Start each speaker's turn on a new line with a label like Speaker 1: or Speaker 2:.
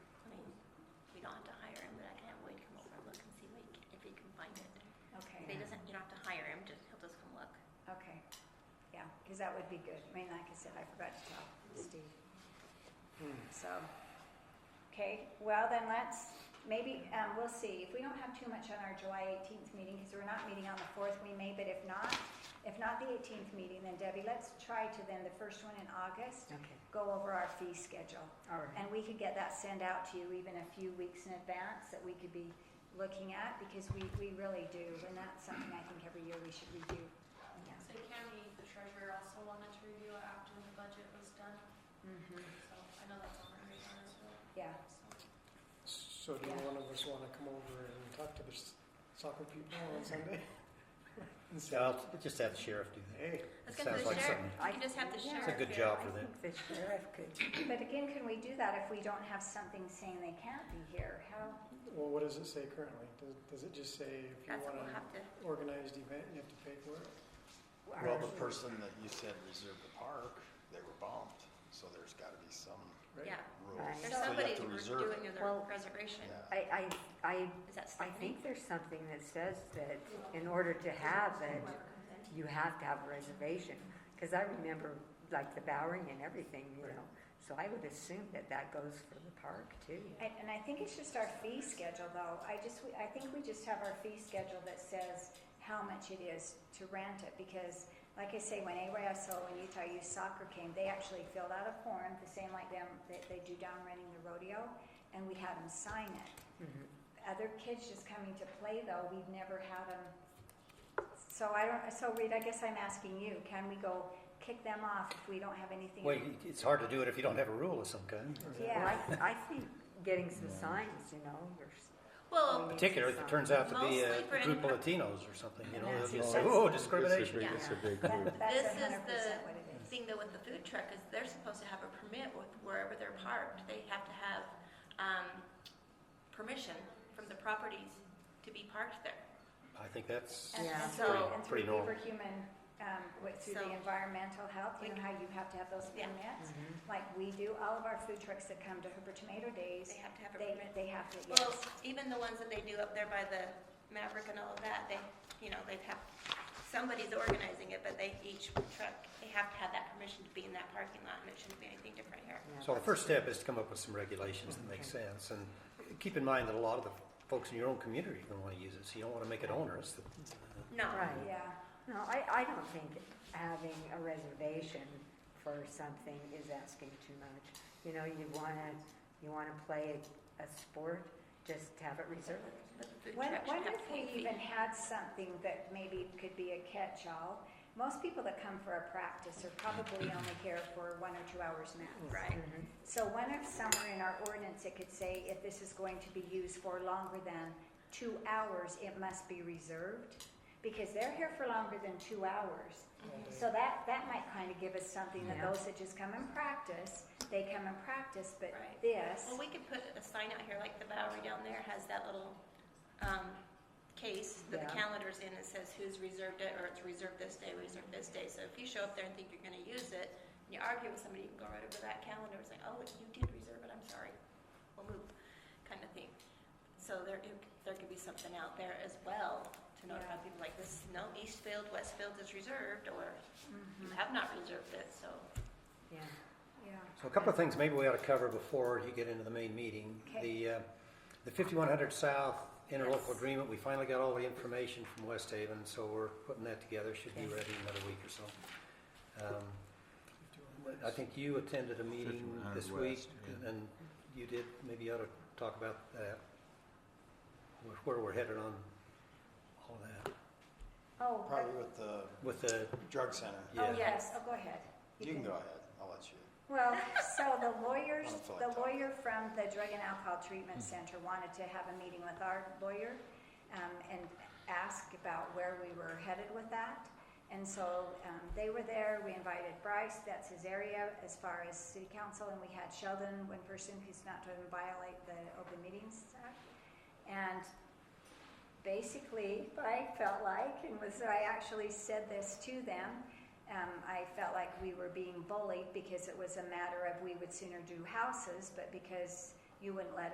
Speaker 1: have to hire him, just, he'll just come look.
Speaker 2: Okay, yeah, because that would be good. I mean, like I said, I forgot to tell Steve.
Speaker 3: Hmm.
Speaker 2: So, okay, well then let's, maybe, um, we'll see. If we don't have too much on our July eighteenth meeting, because we're not meeting on the fourth, we may, but if not, if not the eighteenth meeting, then Debbie, let's try to then, the first one in August,
Speaker 4: Okay,
Speaker 2: go over our fee schedule.
Speaker 4: all right.
Speaker 2: And we could get that sent out to you even a few weeks in advance that we could be looking at because we, we really do. And that's something I think every year we should review.
Speaker 4: Yeah.
Speaker 5: So Tammy, the treasurer, also wanted to review it after the budget was done,
Speaker 2: Mhm.
Speaker 5: so I know that's on her radar as well,
Speaker 2: Yeah,
Speaker 5: so.
Speaker 6: So do one of us want to come over and talk to the s- soccer people on Sunday? And say,
Speaker 3: Yeah, I'll just have the sheriff do that.
Speaker 6: hey,
Speaker 1: Let's
Speaker 3: It
Speaker 1: go
Speaker 3: sounds
Speaker 1: for the
Speaker 3: like
Speaker 1: sheriff,
Speaker 3: something-
Speaker 1: we can just have the
Speaker 2: Yeah.
Speaker 1: sheriff.
Speaker 2: It's
Speaker 3: It's a good
Speaker 1: do it.
Speaker 3: job
Speaker 4: I
Speaker 3: for them.
Speaker 4: think the sheriff could,
Speaker 2: but again, can we do that if we don't have something saying they can't be here? How,
Speaker 6: well, what does it say currently? Does, does it just say if you
Speaker 1: That's what we'll
Speaker 6: want an
Speaker 1: have to,
Speaker 6: organized event, you have to pay for it?
Speaker 7: Well, the person that you said reserved the park, they were bumped, so there's gotta be some
Speaker 6: Right?
Speaker 1: yeah,
Speaker 7: rule.
Speaker 1: there's
Speaker 4: Right.
Speaker 7: So you have
Speaker 1: somebody
Speaker 7: to
Speaker 1: who's
Speaker 7: reserve
Speaker 1: doing
Speaker 7: it.
Speaker 1: the
Speaker 4: Well-
Speaker 1: reservation,
Speaker 7: Yeah.
Speaker 4: I, I, I,
Speaker 1: is that
Speaker 4: I
Speaker 1: Stephanie?
Speaker 4: think there's something that says that in order to have it, you have to have a reservation. Because I remember like the Bowery and everything, you know, so I would assume that that goes for the park too.
Speaker 2: And, and I think it's just our fee schedule though. I just, I think we just have our fee schedule that says how much it is to rent it because like I say, when AYSO and Utah Youth Soccer came, they actually filled out a form, the same like them, that they do down running the rodeo, and we had them sign it.
Speaker 4: Mhm.
Speaker 2: Other kids just coming to play though, we've never had them. So I don't, so Reed, I guess I'm asking you, can we go kick them off if we don't have anything?
Speaker 3: Well, you- it's hard to do it if you don't have a rule of some kind.
Speaker 4: Well,
Speaker 2: Yeah,
Speaker 4: I, I think getting some signs, you know, or. s-
Speaker 1: Well,
Speaker 3: Particularly if it turns out to be
Speaker 1: Mostly for
Speaker 3: a group of
Speaker 1: any-
Speaker 3: Latinos or something, you know,
Speaker 4: Yeah.
Speaker 3: they'll just
Speaker 4: Yeah.
Speaker 3: say, oh, discrimination.
Speaker 1: Yeah.
Speaker 8: It's a big
Speaker 2: that,
Speaker 1: This
Speaker 2: that's
Speaker 1: is
Speaker 2: hundred percent
Speaker 1: the
Speaker 2: what it is.
Speaker 1: Thing though with the food truck is they're supposed to have a permit with wherever they're parked. They have to have, um, permission from the properties to be parked there.
Speaker 3: I think that's,
Speaker 2: And-
Speaker 4: Yeah.
Speaker 2: And so,
Speaker 1: Pretty-
Speaker 2: and
Speaker 3: pretty
Speaker 2: through Beaver
Speaker 3: normal.
Speaker 2: Human, um, with- through
Speaker 1: So-
Speaker 2: the environmental health, you know
Speaker 1: Like-
Speaker 2: how you have to have those
Speaker 1: Yeah. Mm-hmm.
Speaker 2: permits? Like we do, all of our food trucks that come to Hooper Tomato
Speaker 1: They
Speaker 2: Days,
Speaker 1: have to have a
Speaker 2: they,
Speaker 1: permit.
Speaker 2: they have to,
Speaker 1: Well,
Speaker 2: yes.
Speaker 1: even the ones that they do up there by the Maverick and all of that, they, you know, they'd have, somebody's organizing it, but they, each truck, they have to have that permission to be in that parking lot, and it shouldn't be anything different here.
Speaker 4: yeah,
Speaker 3: so the first step is to come up with some regulations that make sense. And keep in mind that a lot of the folks in your own community are gonna wanna use it, so you don't wanna make it onerous.
Speaker 1: No,
Speaker 4: Right.
Speaker 2: Yeah,
Speaker 4: No, I, I don't think having a reservation for something is asking too much. You know, you wanna, you wanna play a, a sport, just have it reserved.
Speaker 1: but the food
Speaker 2: when,
Speaker 1: truck
Speaker 2: when
Speaker 1: should have
Speaker 2: if
Speaker 1: full
Speaker 2: we
Speaker 1: feet.
Speaker 2: even had something that maybe could be a catch-all, most people that come for a practice are probably only here for one or two hours max.
Speaker 1: Right,
Speaker 2: So when if somewhere in our ordinance, it could say if this is going to be used for longer than two hours, it must be reserved? Because they're here for longer than two hours.
Speaker 6: All
Speaker 3: Mm-hmm.
Speaker 6: day.
Speaker 2: So that, that might kind of give us something that
Speaker 4: Yeah.
Speaker 2: those that just come and practice, they come and practice, but
Speaker 1: Right.
Speaker 2: this,
Speaker 1: well, we could put a sign out here, like the Bowery down there has that little, um, case that the
Speaker 4: Yeah.
Speaker 1: calendar's in, that says who's reserved it, or it's reserved this day, reserved this day, so if you show up there and think you're gonna use it, and you argue with somebody, you can go right over that calendar and say, oh, you did reserve it, I'm sorry, we'll move, kind of thing. So there, it- there could be something out there as well to notify
Speaker 2: Yeah.
Speaker 1: people like this, no, Eastfield, Westfield is reserved, or you
Speaker 2: Mm-hmm.
Speaker 1: have not reserved it, so.
Speaker 4: Yeah,
Speaker 2: yeah.
Speaker 3: So a couple of things maybe we ought to cover before you get into the main meeting.
Speaker 2: Okay.
Speaker 3: The, uh, the 5100 South
Speaker 1: Yes.
Speaker 3: interlocal agreement, we finally got all the information from West Haven, so we're putting that together, should be
Speaker 4: Okay.
Speaker 3: ready in another week or so. Um, I think you attended a meeting
Speaker 8: 5100
Speaker 3: this week,
Speaker 8: West, yeah.
Speaker 3: and you did, maybe you ought to talk about that, where- where we're headed on all that,
Speaker 2: Oh, but-
Speaker 7: Probably with the
Speaker 3: with the,
Speaker 7: drug center.
Speaker 2: oh,
Speaker 3: yeah.
Speaker 2: yes, oh, go ahead.
Speaker 7: You can go ahead, I'll let you.
Speaker 2: Well, so the lawyers,
Speaker 7: I don't feel like
Speaker 2: the
Speaker 7: talking.
Speaker 2: lawyer from the Drug and Alcohol Treatment Center wanted to have a meeting with our lawyer um, and ask about where we were headed with that. And so um, they were there, we invited Bryce, that's his area as far as city council, and we had Sheldon, one person who's not to violate the open meetings act. And basically, I felt like, and was, I actually said this to them, um, I felt like we were being bullied because it was a matter of we would sooner do houses, but because you wouldn't let